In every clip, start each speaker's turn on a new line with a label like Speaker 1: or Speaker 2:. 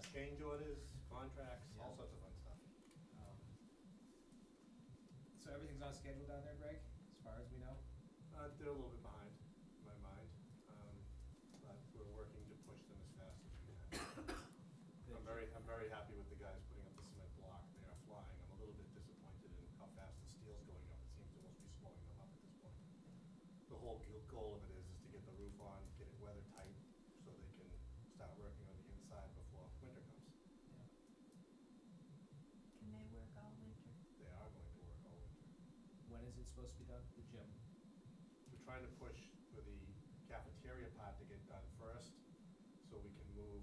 Speaker 1: change orders, contracts, all
Speaker 2: Yeah.
Speaker 1: sorts of fun stuff.
Speaker 2: Um, So everything's on schedule down there, Greg, as far as we know?
Speaker 1: Uh, they're a little bit behind, in my mind, um, but we're working to push them as fast as we can. I'm very, I'm very happy with the guys putting up the cement block. They are flying. I'm a little bit disappointed in how fast the steel's going up. It seems to almost be slowing them up at this point. The whole g- goal of it is, is to get the roof on, get it weather tight, so they can start working on the inside before winter comes.
Speaker 3: Can they work all winter?
Speaker 1: They are going to work all winter.
Speaker 2: When is it supposed to be done, the gym?
Speaker 1: We're trying to push for the cafeteria part to get done first, so we can move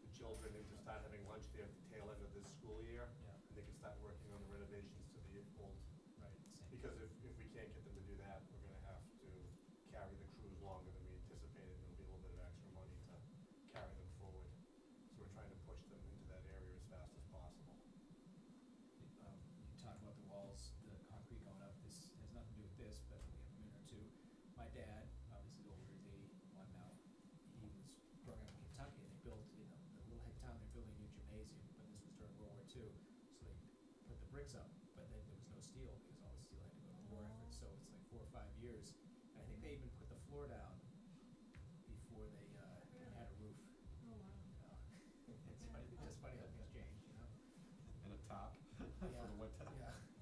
Speaker 1: the children into start having lunch there at the tail end of this school year,
Speaker 2: Yeah.
Speaker 1: and they can start working on the renovations to the old.
Speaker 2: Right, same.
Speaker 1: Because if, if we can't get them to do that, we're gonna have to carry the crews longer than we anticipated, and there'll be a little bit of extra money to carry them forward. So we're trying to push them into that area as fast as possible.
Speaker 2: Um, You talk about the walls, the concrete going up, this has nothing to do with this, but we have a minute or two. My dad, obviously older, he's eighty-one now, he was growing up in Kentucky, and they built, you know, the little head town, they're building a new gymnasium, but this was during World War Two, so they put the bricks up, but then there was no steel, because all the steel had to go to war effort,
Speaker 3: Oh.
Speaker 2: so it's like four or five years. And I think they even put the floor down before they, uh,
Speaker 3: Really?
Speaker 2: had a roof,
Speaker 3: Oh, wow.
Speaker 2: you know? It's funny, it's just funny how things change, you know?
Speaker 4: and a top for
Speaker 2: Yeah,
Speaker 4: the winter.
Speaker 2: Yeah.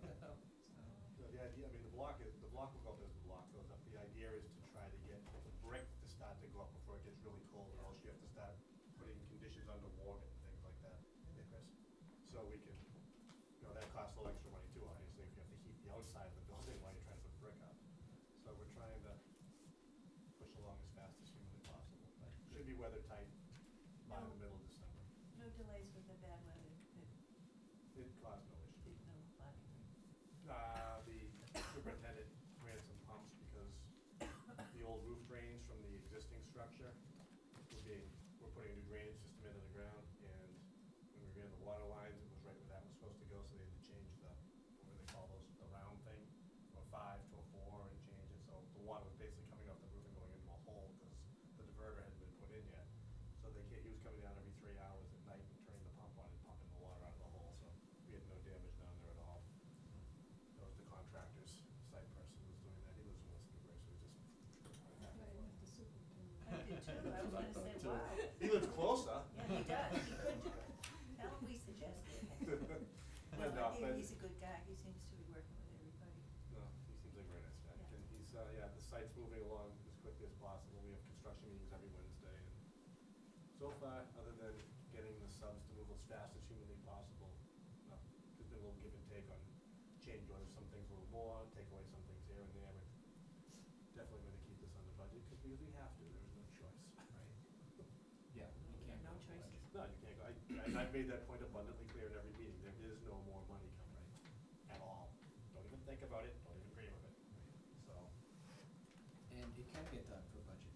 Speaker 2: So,
Speaker 1: So the idea, I mean, the block is, the block will go up as the block goes up. The idea is to try to get the brick to start to go up before it gets really cold, or else you have to start putting conditions underwater and things like that. Yeah, Chris? So we can, you know, that costs a little extra money too, obviously, if you have to heat the outside of the building while you're trying to put brick up. So we're trying to push along as fast as humanly possible. But it Should be weather tight by the
Speaker 3: No.
Speaker 1: middle of December.
Speaker 3: No delays with the bad weather that
Speaker 1: It caused no issue.
Speaker 3: did no flooding.
Speaker 1: Uh, the superintendent ran some pumps because the old roof drains from the existing structure were being, we're putting a new drainage system into the ground, and when we ran the water lines, it was right where that was supposed to go, so they had to change the, what do they call those, the round thing, from a five to a four and change it, so the water was basically coming off the roof and going into a hole, because the diverter hadn't been put in yet. So they can't, he was coming down every three hours at night and turning the pump on and pumping the water out of the hole, so we had no damage down there at all. That was the contractor's site person who was doing that. He lives in West Newbury, so he just.
Speaker 3: I did too, I was
Speaker 4: I
Speaker 3: gonna
Speaker 4: thought
Speaker 3: say,
Speaker 4: too.
Speaker 3: wow.
Speaker 1: He lives closer.
Speaker 3: Yeah, he does, he could do it. Tell him we suggested.
Speaker 1: But
Speaker 3: No,
Speaker 1: no,
Speaker 3: I think
Speaker 1: but-
Speaker 3: he's a good guy, he seems to be working with everybody.
Speaker 1: No, he seems like a very nice guy.
Speaker 3: Yeah.
Speaker 1: And he's, uh, yeah, the site's moving along as quickly as possible. We have construction meetings every Wednesday. and So far, other than getting the subs to move as fast as humanly possible, no, there's been a little give and take on change orders, some things a little more, take away some things here and there. We're Definitely going to keep this under budget because we really have to. There is no choice.
Speaker 2: Right. Yeah, you can't. go
Speaker 3: No
Speaker 2: to
Speaker 3: choices.
Speaker 2: budget.
Speaker 1: No, you can't go, I- and I've made that point abundantly clear in every meeting, there is no more money coming, at all. Don't even think about it, don't even dream of it, so,
Speaker 2: And it can get done for budget.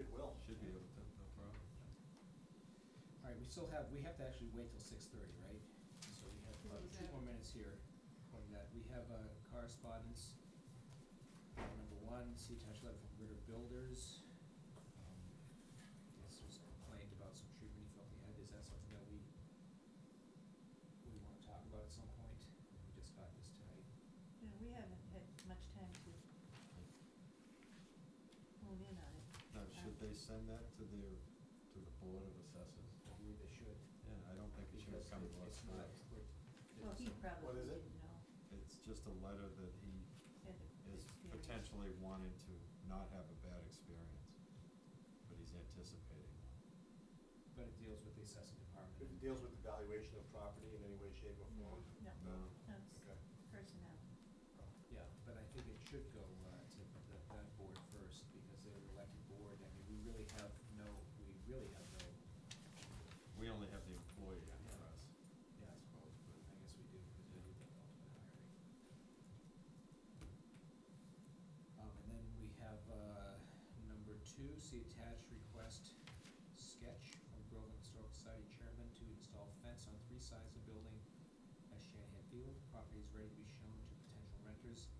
Speaker 1: it will.
Speaker 4: Should be able to, no problem.
Speaker 2: All right, we still have, we have to actually wait till six thirty, right? So we have about two more minutes here on that. We have uh, correspondence. Uh, Number one, see attached letter from Ritter Builders. Um, This was a complaint about some treatment he felt he had. Is that something that we, we want to talk about at some point? We just got this tonight.
Speaker 3: You know, we haven't had much time to hone in on it.
Speaker 4: Now, should they send that to their, to the Board of Assessors?
Speaker 2: I believe they should.
Speaker 4: Yeah, I don't think it should have
Speaker 2: because
Speaker 4: come to
Speaker 2: it's
Speaker 4: us
Speaker 2: not-
Speaker 4: first.
Speaker 2: we're-
Speaker 3: Well, he
Speaker 1: What
Speaker 3: probably
Speaker 1: is it?
Speaker 3: didn't know.
Speaker 4: It's just a letter that he
Speaker 3: had the
Speaker 4: is
Speaker 3: experience.
Speaker 4: potentially wanting to not have a bad experience, but he's anticipating one.
Speaker 2: But it deals with the assessing
Speaker 1: It
Speaker 2: department.
Speaker 1: deals with the valuation of property in any way, shape, or form. Um,
Speaker 3: No,
Speaker 4: No.
Speaker 3: no, it's
Speaker 1: Okay.
Speaker 3: personnel.
Speaker 2: Yeah, but I think it should go uh, to the, that board first, because they're the elected board, I mean, we really have no, we really have no,
Speaker 4: We only have the employee under
Speaker 2: Yeah.
Speaker 4: us.
Speaker 2: yeah, I suppose, but I guess we do, because we do the ultimate hiring. Um, and then we have, uh, number two, see attached request sketch from Groveland Historical Society Chairman to install fence on three sides of building at Shanahan Field. Property is ready to be shown to potential renters. Uh,